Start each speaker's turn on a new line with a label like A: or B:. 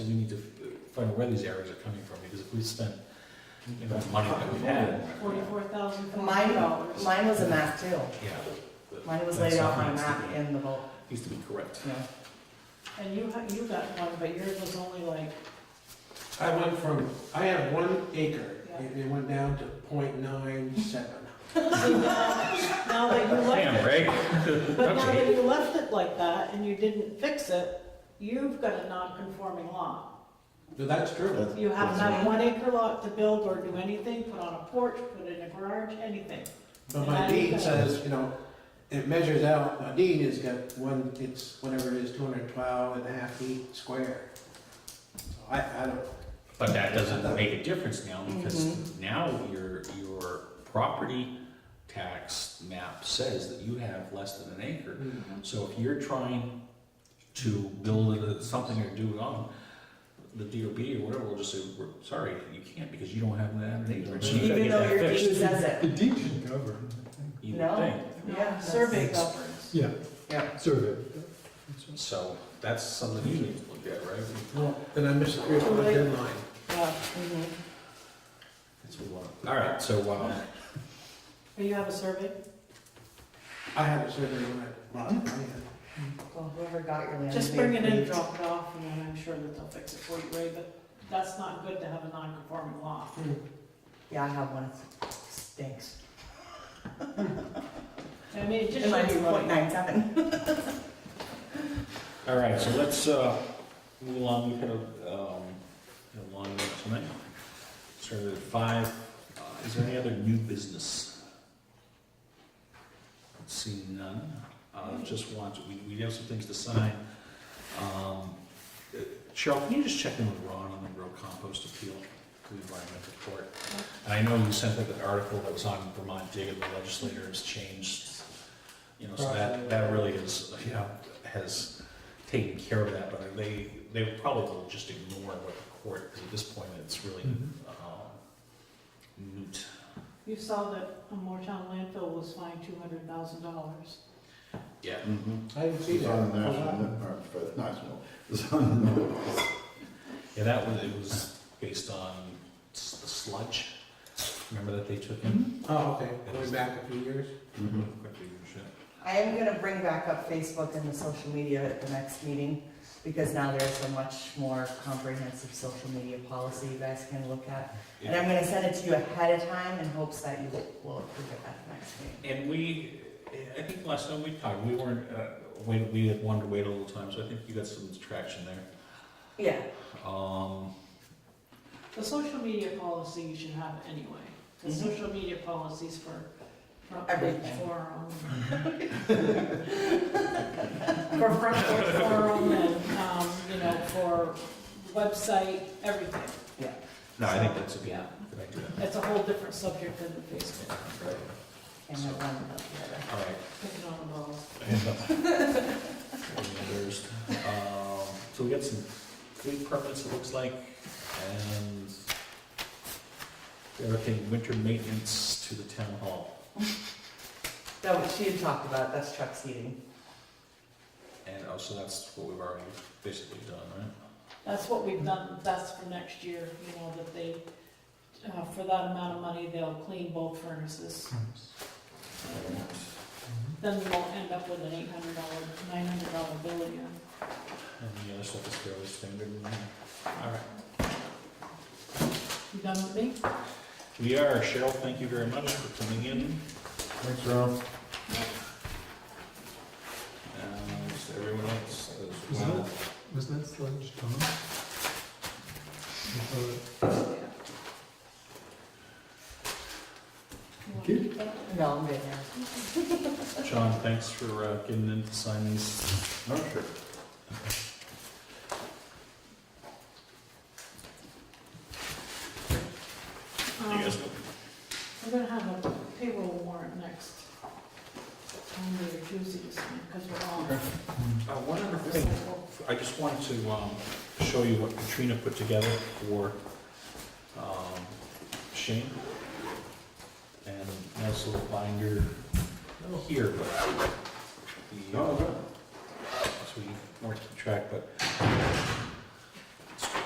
A: find out where these errors are coming from, because if we spent, you know, the money that we had,
B: Forty-four thousand
C: Mine, uh,
B: dollars.
C: mine was a map too.
A: yeah.
C: Mine was
A: That's
C: laid out on a
A: something that
C: map in the vote.
A: Needs to be correct.
C: Yeah.
B: And you, ha- you got one, but yours was only like,
D: I went from, I have one acre,
B: Yeah.
D: and it went down to point nine seven.
B: now that you left it,
A: right?
B: but now that you left it like that and you didn't fix it, you've got a non-conforming lot.
D: No, that's true.
B: You have not one acre lot to build or do anything, put on a porch, put in a garage, anything.
D: But my deed says, you know, it measures out, my deed has got one, it's whatever it is, two hundred twelve and a half feet square. So I, I don't,
A: But that doesn't make a difference now, because now your, your property tax map says that you have less than an acre. So if you're trying to build a- something or do it on, the DOB or whatever will just say, "We're sorry, you can't, because you don't have that acre. So you gotta
C: Even
A: get
C: though
A: that
C: your deed
A: fixed.
C: says it.
E: The deed should govern,
A: You would
C: No.
A: think.
B: No,
C: Yeah,
B: Survey
C: that's-
B: governs.
E: yeah,
C: Yeah.
E: survey.
A: So that's something you need to look at, right?
D: well, then I missed the three foot deadline.
B: Yeah,
C: Mhm.
A: That's what we want. All right, so, um,
B: but you have a survey?
D: I had a survey when I bought it.
C: Well, whoever got your land.
B: Just
C: they
B: bring it in,
C: agreed.
B: drop it off, and then I'm sure that they'll fix it for you, Ray, but that's not good to have a non-conforming lot.
C: Yeah, I have one. It Stinks.
B: I mean, it just
C: It might
B: should
C: be
B: be
C: point
B: right.
C: nine seven.
A: all right, so let's, uh, move along, we could, um, get along with tonight. Started at five, Uh, is there any other new business? See none, uh, just want, we, we have some things to sign. Um, uh, Cheryl, can you just check in with Ron on the real compost appeal to the environmental court? And I know you sent out an article that was on Vermont Digger, the legislator has changed, you know, so that, that really is, you know, has taken care of that, but they, they probably will just ignore what the court, 'cause at this point, it's really,
E: Mhm.
A: um, moot.
B: You saw that a Moretown landfill was fined two hundred thousand dollars.
A: Yeah.
D: I didn't see
F: It's
D: that. Oh,
F: on the national, or for the national, it's on the notice.
A: Yeah, that was, it was based on s- the sludge, remember that they took in?
D: Oh, okay, going back a few years.
F: Mhm.
A: Quickly, shit.
C: I am gonna bring back up Facebook and the social media at the next meeting because now there's a much more comprehensive social media policy you guys can look at. And I'm gonna send it to you ahead of time in hopes that you will approve it at the next meeting.
A: And we, I think last time we talked, we weren't, uh, we, we had wanted to wait a little time, so I think you got some traction there.
C: Yeah,
A: Um,
B: The social media policy you should have anyway. The
C: Mhm.
B: social media policies for, for um,
C: Everything.
B: forum.
C: for front
B: For forum and, um, you know, for website, everything.
A: no, I think that's a good,
B: Yeah.
A: good idea.
B: It's a whole different subject than the Facebook.
C: and I one about the other.
A: All right.
B: Picking on the balls.
A: Others. Um, So we got some good permits, it looks like, and everything, winter maintenance to the town hall.
C: That what she had talked about, that's Chuck's heating.
A: And also, that's what we've already basically done, right?
B: That's what we've done, that's for next year, you know, that they, uh, for that amount of money, they'll clean both furnaces. Then we'll end up with an eight hundred dollar, nine hundred dollar bill again.
A: And the other stuff is fairly standard. All right.
B: You done with me?
A: We are, Cheryl, thank you very much for coming in.
F: Thanks, Ron.
A: And everyone else as
E: Is
A: well.
E: Was that sludge Tom? I thought it-
B: You want to keep that?
C: No, I'm good now.
A: John, thanks for uh, getting in to sign these.
F: Oh, sure.
B: Um, We're gonna have a payroll warrant next Monday or Tuesday this time, because we're all.
A: Uh, One other thing, I just wanted to um, show you what Katrina put together for um, Shane. And a nice little binder here, but the, uh,
F: No, no.
A: so we weren't keep track, but